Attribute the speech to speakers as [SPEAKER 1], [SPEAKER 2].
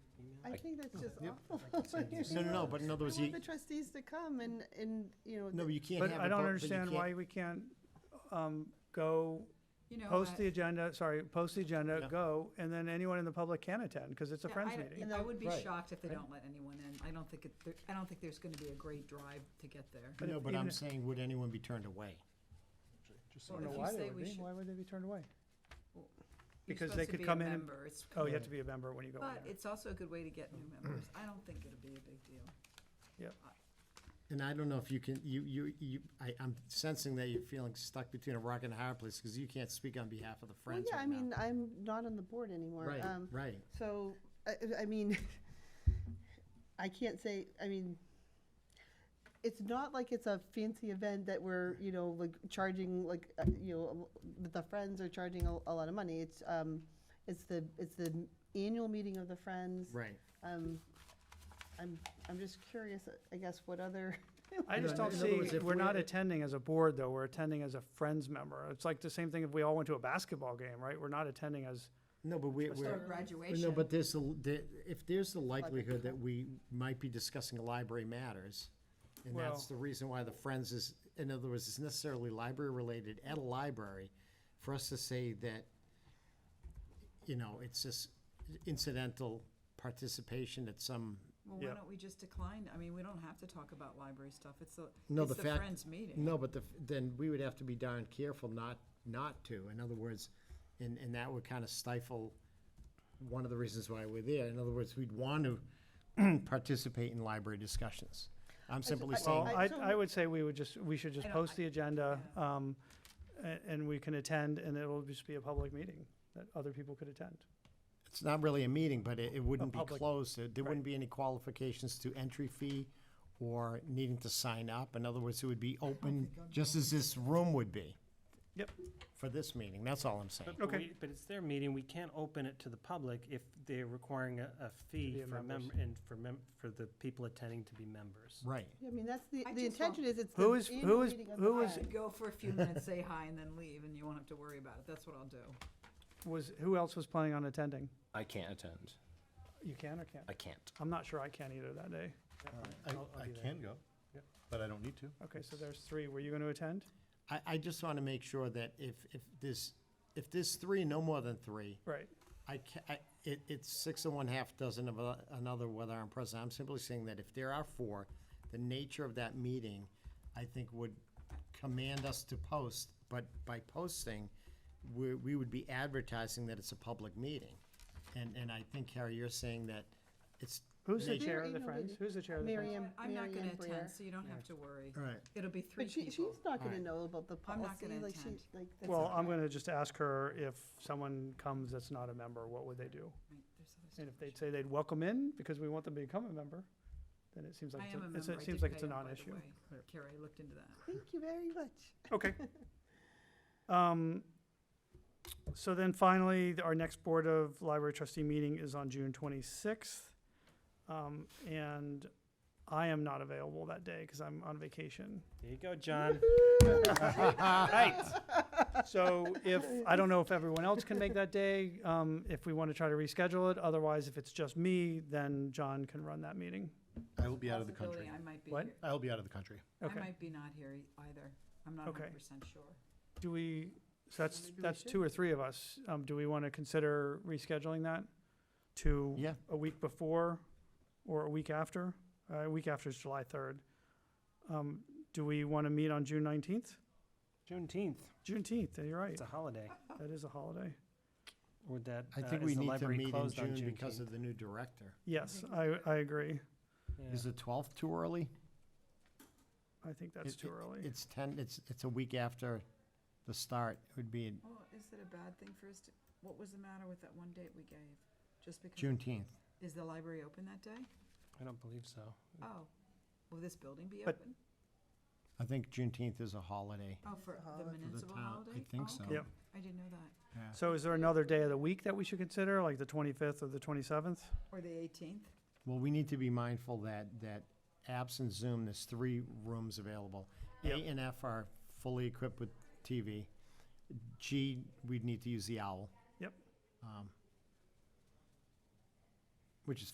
[SPEAKER 1] I
[SPEAKER 2] I-
[SPEAKER 1] think that's just
[SPEAKER 3] Yep.
[SPEAKER 1] awful.
[SPEAKER 3] No, no, no, but in other words,
[SPEAKER 1] I want the
[SPEAKER 3] you,
[SPEAKER 1] trustees to come and, and, you know.
[SPEAKER 3] no,
[SPEAKER 1] the-
[SPEAKER 3] you can't
[SPEAKER 2] But
[SPEAKER 3] have.
[SPEAKER 2] I
[SPEAKER 3] it both-
[SPEAKER 2] don't
[SPEAKER 3] you
[SPEAKER 2] understand
[SPEAKER 3] can't-
[SPEAKER 2] why we can't, um, go,
[SPEAKER 4] You know,
[SPEAKER 2] post
[SPEAKER 4] I-
[SPEAKER 2] the agenda, sorry, post the agenda,
[SPEAKER 3] Yeah.
[SPEAKER 2] go, and then anyone in the public can attend, because it's a
[SPEAKER 4] yeah,
[SPEAKER 2] Friends
[SPEAKER 4] I don't-
[SPEAKER 2] meeting.
[SPEAKER 4] I would be
[SPEAKER 3] Right,
[SPEAKER 4] shocked if they
[SPEAKER 3] right.
[SPEAKER 4] don't let anyone in. I don't think it, there- I don't think there's gonna be a great drive to get there.
[SPEAKER 2] But
[SPEAKER 3] No,
[SPEAKER 2] if-
[SPEAKER 3] but
[SPEAKER 2] even
[SPEAKER 3] I'm
[SPEAKER 2] if-
[SPEAKER 3] saying, would anyone be turned away?
[SPEAKER 2] I
[SPEAKER 4] Just
[SPEAKER 2] don't know
[SPEAKER 4] if you
[SPEAKER 2] why
[SPEAKER 4] say
[SPEAKER 2] they would
[SPEAKER 4] we
[SPEAKER 2] be,
[SPEAKER 4] should-
[SPEAKER 2] why would they be turned away?
[SPEAKER 4] You're
[SPEAKER 2] Because
[SPEAKER 4] supposed
[SPEAKER 2] they
[SPEAKER 4] to
[SPEAKER 2] could
[SPEAKER 4] be a
[SPEAKER 2] come in and-
[SPEAKER 4] member. It's-
[SPEAKER 2] Oh, you have to be a member when you go in
[SPEAKER 4] But
[SPEAKER 2] there.
[SPEAKER 4] it's also a good way to get new members. I don't think it'll be a big deal.
[SPEAKER 3] And I don't know if you can, you, you, you, I, I'm sensing that you're feeling stuck between a rock and a hard place, because you can't speak on behalf of the
[SPEAKER 1] Well,
[SPEAKER 3] Friends
[SPEAKER 1] yeah, I
[SPEAKER 3] right now.
[SPEAKER 1] mean, I'm not on the board anymore.
[SPEAKER 3] Right,
[SPEAKER 1] Um,
[SPEAKER 3] right.
[SPEAKER 1] So, I, I mean, I can't say, I mean, it's not like it's a fancy event that we're, you know, like charging, like, uh, you know, that the Friends are charging a, a lot of money. It's, um, it's the, it's the annual meeting of the Friends.
[SPEAKER 3] Right.
[SPEAKER 1] Um, I'm, I'm just curious, I guess, what other,
[SPEAKER 2] I just
[SPEAKER 3] No,
[SPEAKER 2] don't
[SPEAKER 3] in other words,
[SPEAKER 2] see,
[SPEAKER 3] if
[SPEAKER 2] we're not
[SPEAKER 3] we're-
[SPEAKER 2] attending as a board, though, we're attending as a Friends member. It's like the same thing if we all went to a basketball game, right? We're not attending as,
[SPEAKER 3] No, but we,
[SPEAKER 4] Or
[SPEAKER 3] we're,
[SPEAKER 4] graduation.
[SPEAKER 3] no, but there's, the- the- if there's the likelihood that we might be discussing library matters, and that's
[SPEAKER 2] Well-
[SPEAKER 3] the reason why the Friends is, in other words, it's necessarily library-related at a library, for us to say that, you know, it's just incidental participation at some,
[SPEAKER 4] Well,
[SPEAKER 2] Yeah.
[SPEAKER 4] why don't we just decline? I mean, we don't have to talk about library stuff. It's the,
[SPEAKER 3] No,
[SPEAKER 4] it's
[SPEAKER 3] the
[SPEAKER 4] the
[SPEAKER 3] fact-
[SPEAKER 4] Friends meeting.
[SPEAKER 3] No, but the, then we would have to be darn careful not, not to. In other words, and, and that would kind of stifle one of the reasons why we're there. In other words, we'd want to participate in library discussions. I'm simply
[SPEAKER 1] I-
[SPEAKER 2] well,
[SPEAKER 3] saying,
[SPEAKER 1] I-
[SPEAKER 2] I,
[SPEAKER 1] so-
[SPEAKER 2] I would say we would just, we should just
[SPEAKER 4] I don't-
[SPEAKER 2] post the agenda, um, and, and we can attend, and it'll just be a public meeting that other people could attend.
[SPEAKER 3] it's not really a meeting, but it, it wouldn't be
[SPEAKER 2] public-
[SPEAKER 3] closed. There- There wouldn't
[SPEAKER 2] right.
[SPEAKER 3] be any qualifications to entry fee or needing to sign up. In other words, it would be open, just as this room would be.
[SPEAKER 2] Yep.
[SPEAKER 3] For this meeting, that's all I'm saying.
[SPEAKER 5] But- but
[SPEAKER 2] Okay.
[SPEAKER 5] we- But it's their meeting, we can't open it to the public if they're requiring a, a
[SPEAKER 2] be
[SPEAKER 5] fee
[SPEAKER 2] a
[SPEAKER 5] for
[SPEAKER 2] members.
[SPEAKER 5] mem, and for mem, for the people attending to be members.
[SPEAKER 3] Right.
[SPEAKER 1] I mean, that's the,
[SPEAKER 4] I
[SPEAKER 1] the
[SPEAKER 4] just want-
[SPEAKER 1] intention is it's the
[SPEAKER 2] Who is-
[SPEAKER 1] annual
[SPEAKER 2] who is-
[SPEAKER 1] meeting of the
[SPEAKER 2] who
[SPEAKER 4] I
[SPEAKER 2] was-
[SPEAKER 1] Friends.
[SPEAKER 4] should go for a few minutes, say hi, and then leave, and you won't have to worry about it. That's what I'll do.
[SPEAKER 2] Was, who else was planning on attending?
[SPEAKER 6] I can't attend.
[SPEAKER 2] You can or can't?
[SPEAKER 6] I can't.
[SPEAKER 2] I'm not sure I can either that day.
[SPEAKER 7] I,
[SPEAKER 2] I'll- I'll
[SPEAKER 7] I
[SPEAKER 2] be there.
[SPEAKER 7] can go,
[SPEAKER 5] Yep.
[SPEAKER 7] but I don't need to.
[SPEAKER 2] Okay, so there's three. Were you going to attend?
[SPEAKER 3] I, I just want to make sure that if, if there's, if there's three, no more than three,
[SPEAKER 2] Right.
[SPEAKER 3] I ca I, it, it's six and one half dozen of a- another whether I'm present. I'm simply saying that if there are four, the nature of that meeting, I think would command us to post, but by posting, we, we would be advertising that it's a public meeting. And, and I think, Harry, you're saying that it's.
[SPEAKER 2] Who's the
[SPEAKER 3] nature-
[SPEAKER 2] chair of
[SPEAKER 1] Mary,
[SPEAKER 2] the
[SPEAKER 1] no,
[SPEAKER 2] Friends?
[SPEAKER 1] lady.
[SPEAKER 2] Who's the chair of the
[SPEAKER 1] Mary
[SPEAKER 2] Friends?
[SPEAKER 1] Ann,
[SPEAKER 4] I'm not
[SPEAKER 1] Mary
[SPEAKER 4] gonna
[SPEAKER 1] Ann Breer.
[SPEAKER 4] attend, so you don't have to worry.
[SPEAKER 3] All right.
[SPEAKER 4] It'll be three
[SPEAKER 1] But she,
[SPEAKER 4] people.
[SPEAKER 1] she's not gonna
[SPEAKER 3] Alright.
[SPEAKER 1] know about the
[SPEAKER 4] I'm not
[SPEAKER 1] policy,
[SPEAKER 4] gonna
[SPEAKER 1] like she,
[SPEAKER 4] attend.
[SPEAKER 1] like. that's
[SPEAKER 2] Well,
[SPEAKER 1] not-
[SPEAKER 2] I'm going to just ask her if someone comes that's not a member, what would they do?
[SPEAKER 4] Right, there's other
[SPEAKER 2] And if
[SPEAKER 4] stuff.
[SPEAKER 2] they'd say they'd welcome in because we want them to become a member, then it seems like,
[SPEAKER 4] I
[SPEAKER 2] it's
[SPEAKER 4] am a
[SPEAKER 2] a- it's
[SPEAKER 4] member.
[SPEAKER 2] a- it
[SPEAKER 4] I
[SPEAKER 2] seems
[SPEAKER 4] did
[SPEAKER 2] like
[SPEAKER 4] pay
[SPEAKER 2] it's a
[SPEAKER 4] up, by the
[SPEAKER 2] non-issue.
[SPEAKER 4] way. Carrie, I looked into that.
[SPEAKER 1] Thank you very much.
[SPEAKER 2] Okay. Um, So then finally, our next Board of Library Trustee meeting is on June twenty-sixth. Um, And I am not available that day because I'm on vacation.
[SPEAKER 5] There you go, John.
[SPEAKER 2] Right. So if, I don't know if everyone else can make that day, um, if we want to try to reschedule it. Otherwise, if it's just me, then John can run that meeting.
[SPEAKER 7] I will be out of the
[SPEAKER 4] Possibility
[SPEAKER 7] country.
[SPEAKER 4] I might be
[SPEAKER 2] What?
[SPEAKER 4] here.
[SPEAKER 7] I will be out of the country.
[SPEAKER 4] I
[SPEAKER 2] Okay.
[SPEAKER 4] might be not here e- either. I'm not
[SPEAKER 2] Okay.
[SPEAKER 4] hundred percent sure.
[SPEAKER 2] Do we, so that's,
[SPEAKER 1] Maybe we
[SPEAKER 2] that's
[SPEAKER 1] should.
[SPEAKER 2] two or three of us. Um, do we want to consider rescheduling that to
[SPEAKER 3] Yeah,
[SPEAKER 2] a week before or a week after? Uh, a week after is July third. Um, do we want to meet on June nineteenth?
[SPEAKER 5] Juneteenth,
[SPEAKER 2] Juneteenth, you're right.
[SPEAKER 5] it's a holiday.
[SPEAKER 2] That is a holiday.
[SPEAKER 5] Would that,
[SPEAKER 3] I
[SPEAKER 5] uh,
[SPEAKER 3] think
[SPEAKER 5] is
[SPEAKER 3] we
[SPEAKER 5] the
[SPEAKER 3] need to
[SPEAKER 5] library
[SPEAKER 3] meet in
[SPEAKER 5] closed on
[SPEAKER 3] June because
[SPEAKER 5] Juneteenth?
[SPEAKER 3] of the new director.
[SPEAKER 2] Yes,
[SPEAKER 4] think
[SPEAKER 2] I, I agree.
[SPEAKER 5] Yeah.
[SPEAKER 3] Is the twelfth too early?
[SPEAKER 2] I think that's
[SPEAKER 3] It-
[SPEAKER 2] too
[SPEAKER 3] it-
[SPEAKER 2] early.
[SPEAKER 3] It's ten, it's, it's a week after the start. It would be in
[SPEAKER 4] Well, is it a bad thing for us to, what was the matter with that one date we gave? Just because?
[SPEAKER 3] Juneteenth.
[SPEAKER 4] Is the library open that day?
[SPEAKER 5] I don't believe so.
[SPEAKER 4] Oh, will this building be
[SPEAKER 2] But-
[SPEAKER 4] open?
[SPEAKER 3] I think Juneteenth is a holiday.
[SPEAKER 4] Oh, for
[SPEAKER 1] holiday.
[SPEAKER 4] the
[SPEAKER 1] For the
[SPEAKER 4] municipal
[SPEAKER 3] town, I
[SPEAKER 4] holiday?
[SPEAKER 3] think
[SPEAKER 4] Oh,
[SPEAKER 3] so.
[SPEAKER 4] okay.
[SPEAKER 2] Yep.
[SPEAKER 4] I didn't know that.
[SPEAKER 3] Yeah.
[SPEAKER 2] So is there another day of the week that we should consider, like the twenty-fifth or the twenty-seventh?
[SPEAKER 4] Or the eighteenth?
[SPEAKER 3] Well, we need to be mindful that, that absent Zoom, there's three rooms available. A
[SPEAKER 2] Yep.
[SPEAKER 3] and F are fully equipped with TV. G, we'd need to use the owl.
[SPEAKER 2] Yep.
[SPEAKER 3] Um, Which is